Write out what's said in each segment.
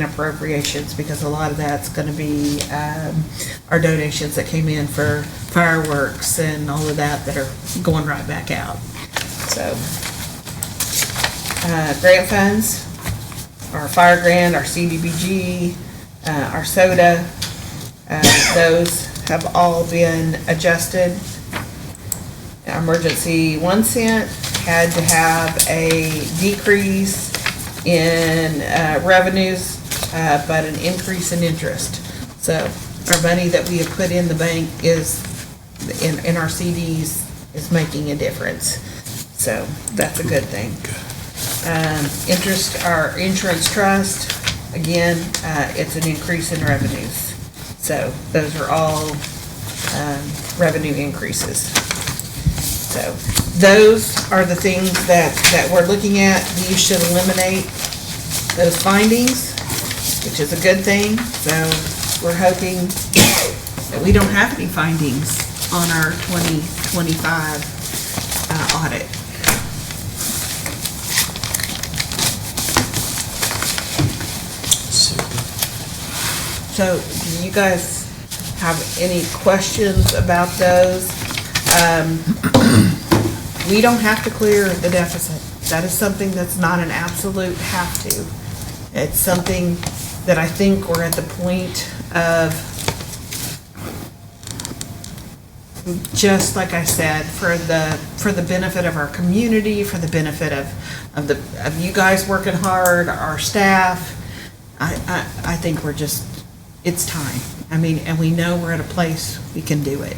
and appropriations, because a lot of that's gonna be, um, our donations that came in for fireworks and all of that that are going right back out, so. Uh, grant funds, our fire grant, our CDBG, uh, our soda, uh, those have all been adjusted emergency one cent, had to have a decrease in uh, revenues, uh, but an increase in interest. So our money that we have put in the bank is, in, in our CDs, is making a difference. So that's a good thing. Um, Interest, our insurance trust, again, uh, it's an increase in revenues. So those are all um, revenue increases. So those are the things that, that we're looking at. You should eliminate those findings, which is a good thing. So we're hoping that we don't have any findings on our 2025 uh, audit. So do you guys have any questions about those? we don't have to clear the deficit. That is something that's not an absolute have to. It's something that I think we're at the point of, just like I said, for the, for the benefit of our community, for the benefit of, of the, of you guys working hard, our staff, I, I, I think we're just, it's time. I mean, and we know we're at a place we can do it.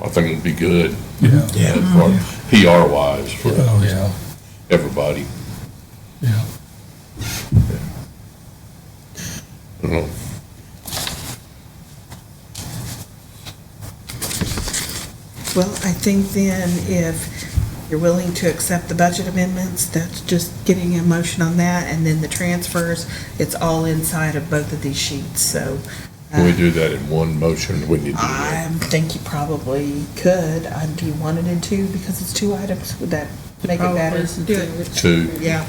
I think it'd be good. Yeah, Yeah. PR wise for oh, yeah, everybody. yeah. you know. Well, I think then if you're willing to accept the budget amendments, that's just getting a motion on that, and then the transfers, it's all inside of both of these sheets, so. uh, Can we do that in one motion? Wouldn't you do I that? think you probably could, I do you want it in two, because it's two items, would that make it better? Two? Yeah,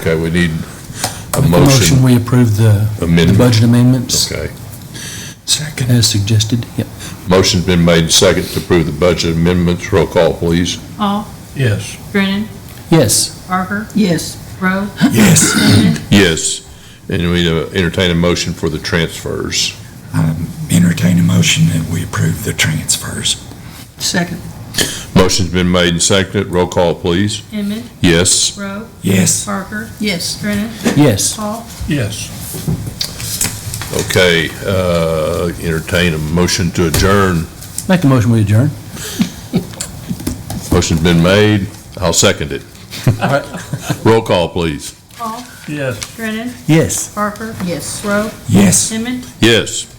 Okay, we need a Make a motion, motion. we approve the the Amendment. budget amendments Okay. Second. as suggested. Yep. Motion's been made second to approve the budget amendments. Roll call, please. Hall, Yes. Brennan, Yes, Barker, Yes, Rowe, Yes. Yes. And we uh, entertain a motion for the transfers. Um, Entertain a motion that we approve the transfers. second, Motion's been made and seconded. Roll call, please. Inman, Yes. Rowe, Yes. Barker, yes, Brennan, yes. Hall, Yes. Okay, uh, entertain a motion to adjourn. Make a motion, we adjourn. Motion's been made. I'll second it. Roll call, please. Hall, Yes. Brennan, Yes. Barker, yes. Rowe, Yes. Inman, Yes.